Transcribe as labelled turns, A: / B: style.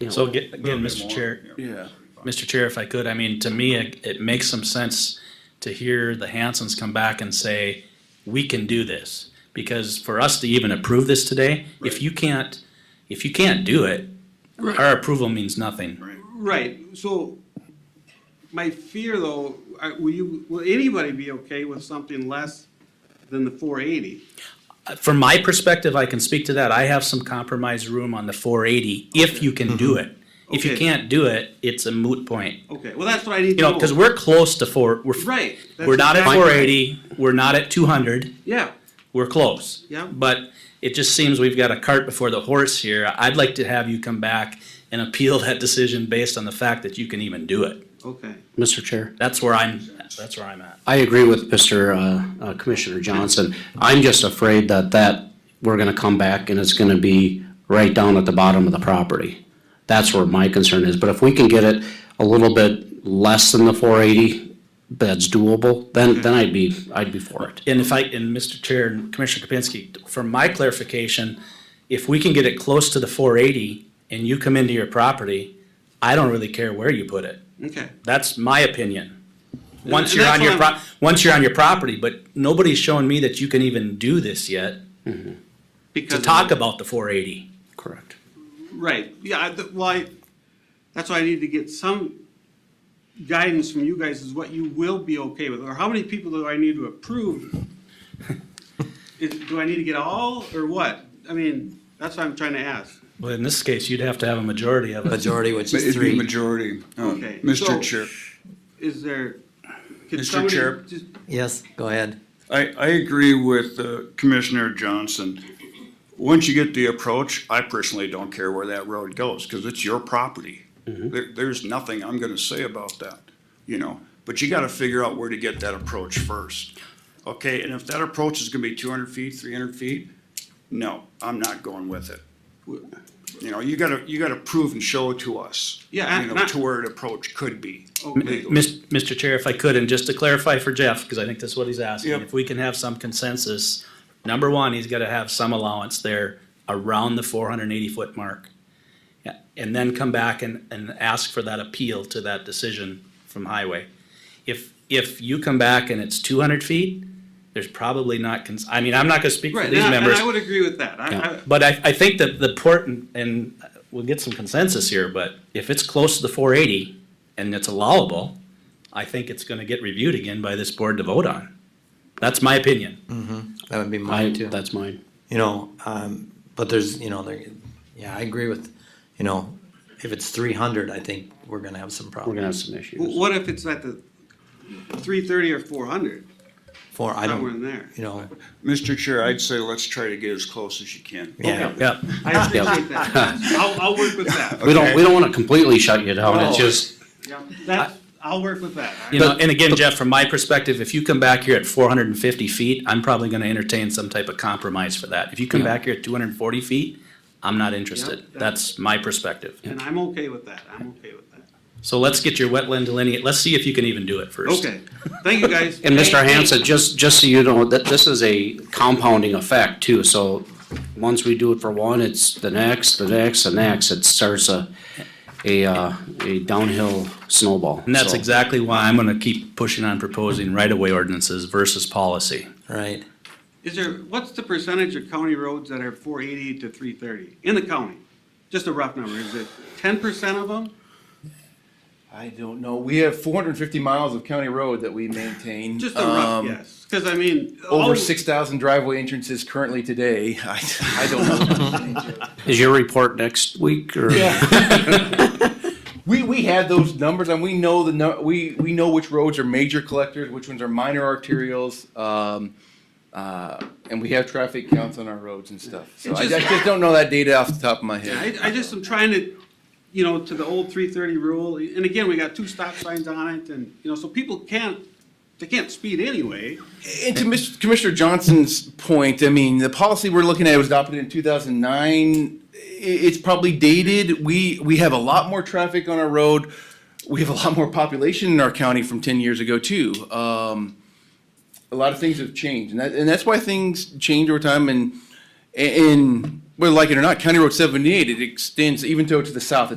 A: Yeah.
B: So aga- again,
C: Little bit
B: Mr.
C: more,
B: Chair,
C: yeah.
B: Mr. Chair, if I could, I mean, to me, it, it makes some sense to hear the Hansons come back and say, we can do this. Because for us to even approve this today, if
C: Right.
B: you can't, if you can't do it, our approval means nothing.
C: Right.
A: Right, so my fear though, I- will you, will anybody be okay with something less than the four eighty?
B: From my perspective, I can speak to that. I have some compromise room on the four eighty, if you can do it. If you
A: Okay.
B: can't do it, it's a moot point.
A: Okay, well, that's what I need to
B: You
A: know.
B: know, cause we're close to four, we're,
A: Right. that's
B: we're not at
A: exactly
B: four
A: right.
B: eighty, we're not at two hundred.
A: Yeah,
B: we're close.
A: Yeah.
B: But it just seems we've got a cart before the horse here. I'd like to have you come back and appeal that decision based on the fact that you can even do it.
A: okay.
D: Mr. Chair,
B: That's where I'm, that's where I'm at.
D: I agree with Mr. uh, uh, Commissioner Johnson. I'm just afraid that that, we're gonna come back and it's gonna be right down at the bottom of the property. That's where my concern is, but if we can get it a little bit less than the four eighty, that's doable, then, then I'd be, I'd be for it.
B: And if I, and Mr. Chair and Commissioner Kapinski, for my clarification, if we can get it close to the four eighty and you come into your property, I don't really care where you put it.
A: Okay,
B: That's my opinion. Once
A: and
B: you're
A: that's
B: on your
A: what
B: pro, once you're on your property, but nobody's shown me that you can even do this yet
A: because.
B: to
A: of
B: talk
A: the-
B: about the four eighty.
D: Correct.
A: Right, yeah, I- th- well, I, that's why I need to get some guidance from you guys is what you will be okay with, or how many people do I need to approve? Is, do I need to get all, or what? I mean, that's what I'm trying to ask.
B: Well, in this case, you'd have to have a majority of it.
E: Majority, which
C: But
E: is
C: It'd be
E: three.
C: majority. Um,
A: Okay, so-
C: Mr. Chair,
A: Is there? could
C: Mr.
A: somebody
C: Chair.
A: just-
E: Yes, go ahead.
C: I, I agree with uh, Commissioner Johnson. Once you get the approach, I personally don't care where that road goes, because it's your property. There, there's nothing I'm gonna say about that, you know, but you gotta figure out where to get that approach first. Okay, and if that approach is gonna be two hundred feet, three hundred feet, no, I'm not going with it. You know, you gotta, you gotta prove and show to us.
A: Yeah, Oh.
C: You
A: I-
C: know,
A: I-
C: to where an approach could be
A: Okay,
C: legally.
B: Mis- Mr. Chair, if I could, and just to clarify for Jeff, because I think that's what he's asking,
C: Yep.
B: if we can have some consensus, number one, he's gotta have some allowance there around the four hundred and eighty foot mark. Yeah, And then come back and, and ask for that appeal to that decision from highway. If, if you come back and it's two hundred feet, there's probably not, cons- I mean, I'm not gonna speak for
A: Right,
B: these
A: and I, and
B: members.
A: I would agree with that. I, I,
B: But I, I think that the port, and- and we'll get some consensus here, but if it's close to the four eighty and it's allowable, I think it's gonna get reviewed again by this board to vote on. That's my opinion.
E: That would be
D: I,
E: mine too.
D: that's mine.
E: You know, um, but there's, you know, there, yeah, I agree with, you know, if it's three hundred, I think we're gonna have some
D: We're gonna have
E: problems.
D: some issues.
A: what if it's at the three thirty or four hundred,
E: Four, I
A: somewhere in
E: don't,
A: there?
E: you know,
C: Mr. Chair, I'd say let's try to get as close as you can.
E: yeah.
B: Yeah,
A: I appreciate that. I'll, I'll work with that.
D: We don't, we don't wanna completely shut you down, it's
A: No.
D: just,
A: Yeah, that's, I'll work with that. I-
B: you know, and again, Jeff, from my perspective, if you come back here at four hundred and fifty feet, I'm probably gonna entertain some type of compromise for that. If you come back here at two hundred and forty feet, I'm not interested.
A: that-
B: That's my perspective.
A: And I'm okay with that, I'm okay with that.
B: So let's get your wetland delineate, let's see if you can even do it first.
A: Okay, thank you, guys.
D: And Mr. Hanson, just, just so you know, that this is a compounding effect too, so once we do it for one, it's the next, the next, the next, it starts a, a, uh, a downhill snowball.
B: And that's
D: So,
B: exactly why I'm gonna keep pushing on proposing right-of-way ordinances versus policy.
E: Right.
A: Is there, what's the percentage of county roads that are four eighty to three thirty in the county? Just a rough number, is it ten percent of them?
F: I don't know. We have 450 miles of county road that we maintain.
A: Just a rough
F: Um,
A: guess, Oh. cause I mean. all-
F: Over 6,000 driveway entrances currently today. I, I don't know.
D: Is your report next week or?
F: we we have those numbers and we know the nu- we we know which roads are major collectors, which ones are minor arterials. Um, uh, and we have traffic counts on our roads and stuff. So
A: It's
F: I,
A: just-
F: I just don't know that data off the top of my head.
A: I, I just am trying to, you know, to the old three thirty rule, and again, we got two stop signs on it, and, you know, so people can't, they can't speed anyway.
F: And to Mr. Commissioner Johnson's point, I mean, the policy we're looking at was adopted in two thousand nine. it's probably dated. We, we have a lot more traffic on our road. We have a lot more population in our county from ten years ago too. Um, a lot of things have changed and that, and that's why things change over time and, and, whether like it or not, County Road seventy-eight, it extends even though to the south,